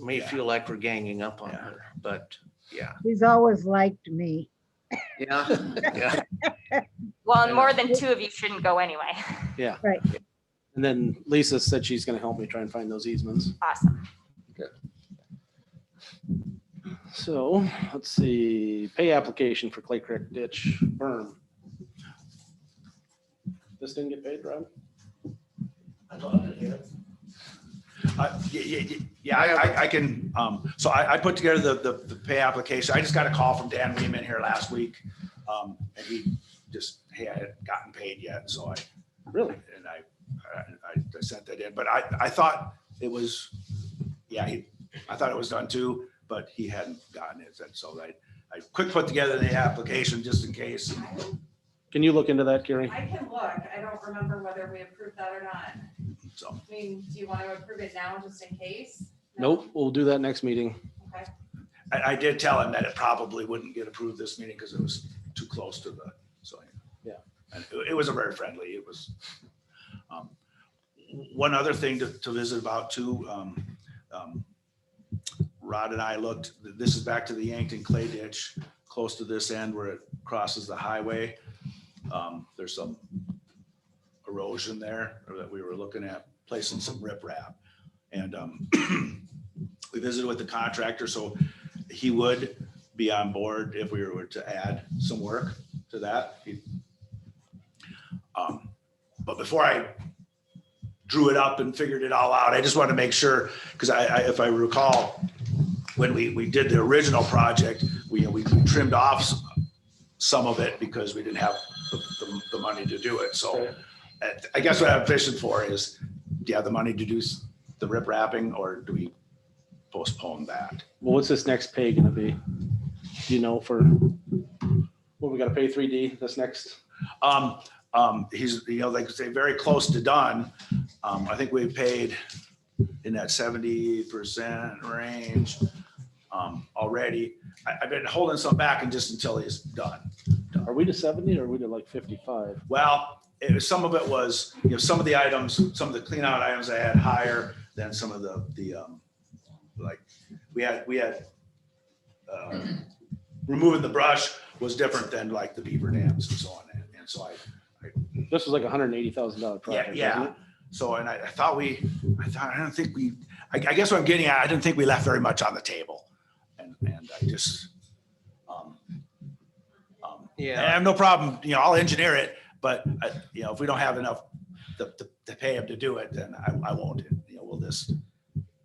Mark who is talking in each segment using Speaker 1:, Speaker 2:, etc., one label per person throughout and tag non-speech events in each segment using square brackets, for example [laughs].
Speaker 1: may
Speaker 2: Yeah.
Speaker 1: feel like we're ganging up on
Speaker 2: Yeah.
Speaker 1: her, but yeah,
Speaker 3: He's always liked me.
Speaker 1: yeah, [laughs] yeah.
Speaker 4: Well, and more than two of you shouldn't go anyway. [laughs]
Speaker 5: And then Lisa said she's gonna help me try and find those easements.
Speaker 4: Awesome.
Speaker 5: So let's see, pay application for Clay Creek ditch berm. This didn't get paid, Rob?
Speaker 2: Uh, Yeah, yeah, yeah, yeah, I, I- I can, um, so I, I put together the, the, the pay application. I just got a call from Dan Weeman here last week. Um, and he just, hey, I hadn't gotten paid yet, so I,
Speaker 5: Really?
Speaker 2: and I, I- I sent that in, but I, I thought it was, yeah, he, I thought it was done too, but he hadn't gotten it, so I, I quick put together the application just in case.
Speaker 5: Can you look into that, Gary?
Speaker 6: I can look. I don't remember whether we approved that or not.
Speaker 2: So,
Speaker 6: I mean, do you want to approve it now just in case? No?
Speaker 5: Nope, we'll do that next meeting.
Speaker 6: Okay.
Speaker 2: I, I did tell him that it probably wouldn't get approved this meeting because it was too close to the, so.
Speaker 5: Yeah.
Speaker 2: And it, it was a very friendly, it was. um, One other thing to, to visit about too, um, um, Rod and I looked, this is back to the Yankton Clay Ditch, close to this end where it crosses the highway. Um, There's some erosion there or that we were looking at placing some riprap. And um, [clears throat] we visited with the contractor, so he would be on board if we were to add some work to that. He- Um, But before I drew it up and figured it all out, I just wanted to make sure, because I, I- if I recall, when we, we did the original project, we, we trimmed off s- some of it because we didn't have the, the- the money to do it, so. uh, I guess what I'm fishing for is, do you have the money to do s- the rip wrapping, or do we postpone that?
Speaker 5: Well, what's this next pay gonna be? Do you know for, what, we gotta pay three D this next?
Speaker 2: Um, um, he's, you know, like I say, very close to done. Um, I think we paid in that seventy percent range, um, already. I, I've been holding some back and just until he's done.
Speaker 5: Are we to seventy or are we to like fifty-five?
Speaker 2: Well, it was, some of it was, you know, some of the items, some of the clean out items I had higher than some of the, the, um, like, we had, we had, uh, removing the brush was different than like the beaver dams and so on. And- And so I,
Speaker 5: This was like a hundred and eighty thousand dollar
Speaker 2: Yeah,
Speaker 5: project.
Speaker 2: yeah.
Speaker 5: wasn't it?
Speaker 2: So, and I, I thought we, I thought, I don't think we, I, I guess what I'm getting at, I didn't think we left very much on the table. And, and I just, um, um, and I
Speaker 1: Yeah,
Speaker 2: have no problem, you know, I'll engineer it, but I, you know, if we don't have enough to, to, to pay him to do it, then I, I won't, you know, we'll just.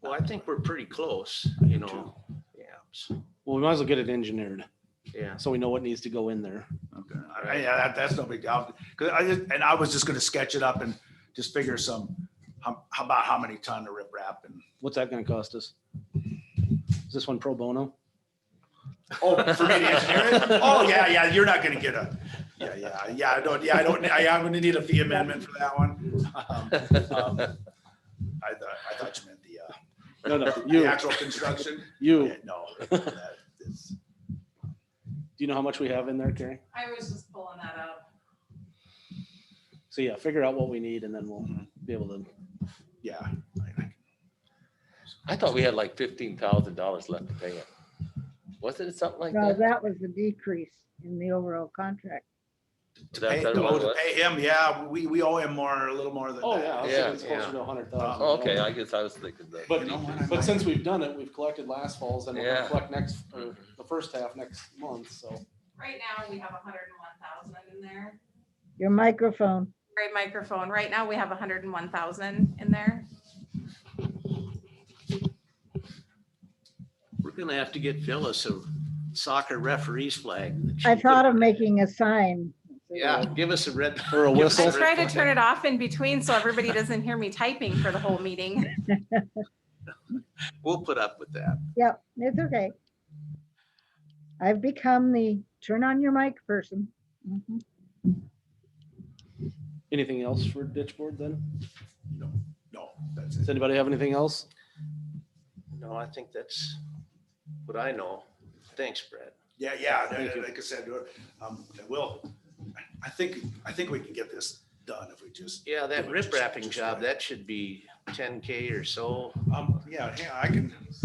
Speaker 1: well, I think we're pretty close, you know, yeah, so,
Speaker 5: Well, we might as well get it engineered,
Speaker 1: yeah.
Speaker 5: so we know what needs to go in there.
Speaker 2: Okay. I- Yeah, that, that's no big deal. Cause I, just- and I was just gonna sketch it up and just figure some, how, how about how many ton of rip wrap and,
Speaker 5: What's that gonna cost us? Is this one pro bono?
Speaker 2: Oh, for me to engineer it? Oh, yeah, yeah, you're not gonna get a, yeah, yeah, yeah, I don't, yeah, I don't, I, I'm gonna need a fee amendment for that one. Um, um, I thought, I thought you meant the, uh,
Speaker 5: No, no,
Speaker 2: the
Speaker 5: [laughs] you,
Speaker 2: actual construction.
Speaker 5: you,
Speaker 2: Yeah,
Speaker 5: do
Speaker 2: No. that is-
Speaker 5: you know how much we have in there, Carrie?
Speaker 6: I was just pulling that up.
Speaker 5: So yeah, figure out what we need and then we'll be able to,
Speaker 2: Yeah. I- I-
Speaker 7: I thought we had like fifteen thousand dollars left to pay him. Wasn't it something like
Speaker 3: No,
Speaker 7: that?
Speaker 3: that was the decrease in the overall contract.
Speaker 2: To
Speaker 7: That-
Speaker 2: pay,
Speaker 7: that
Speaker 2: no,
Speaker 7: one
Speaker 2: to
Speaker 7: was-
Speaker 2: pay him, yeah, we, we owe him more, a little more than
Speaker 5: oh yeah, I
Speaker 2: that.
Speaker 5: was
Speaker 7: Yeah,
Speaker 5: thinking it's closer
Speaker 1: yeah.
Speaker 5: to a hundred thousand.
Speaker 7: Oh, Okay, I guess I was thinking that.
Speaker 5: But,
Speaker 2: You know what, I
Speaker 5: but
Speaker 2: might-
Speaker 5: since we've done it, we've collected last falls and we'll
Speaker 7: Yeah.
Speaker 5: collect next, or the first half next month, so.
Speaker 6: Right now, we have hundred and one thousand in there.
Speaker 3: Your microphone.
Speaker 6: Great microphone. Right now, we have hundred and one thousand in there.
Speaker 1: We're gonna have to get Phyllis a soccer referee's flag. that she
Speaker 3: I thought of
Speaker 1: could-
Speaker 3: making a sign.
Speaker 1: Yeah, give us a red.
Speaker 5: Or a
Speaker 1: give us
Speaker 5: So-
Speaker 6: I
Speaker 5: whistle.
Speaker 6: try to
Speaker 1: red
Speaker 6: turn
Speaker 1: flag.
Speaker 6: it off in between so everybody doesn't hear me typing for the whole meeting.
Speaker 1: We'll put up with that.
Speaker 3: Yep, it's okay. I've become the turn on your mic person. Mhm.
Speaker 5: Anything else for ditch board then?
Speaker 2: No, no, that's
Speaker 5: Does
Speaker 2: it.
Speaker 5: anybody have anything else?
Speaker 1: No, I think that's what I know. Thanks, Brett.
Speaker 2: Yeah, yeah,
Speaker 5: Thank you.
Speaker 2: like I said, um, we'll, I think, I think we can get this done if we just
Speaker 1: Yeah, that
Speaker 2: Yeah, just-
Speaker 1: rip wrapping
Speaker 2: just
Speaker 1: job,
Speaker 2: right.
Speaker 1: that should be ten K or so.
Speaker 2: Um, yeah, yeah, I can,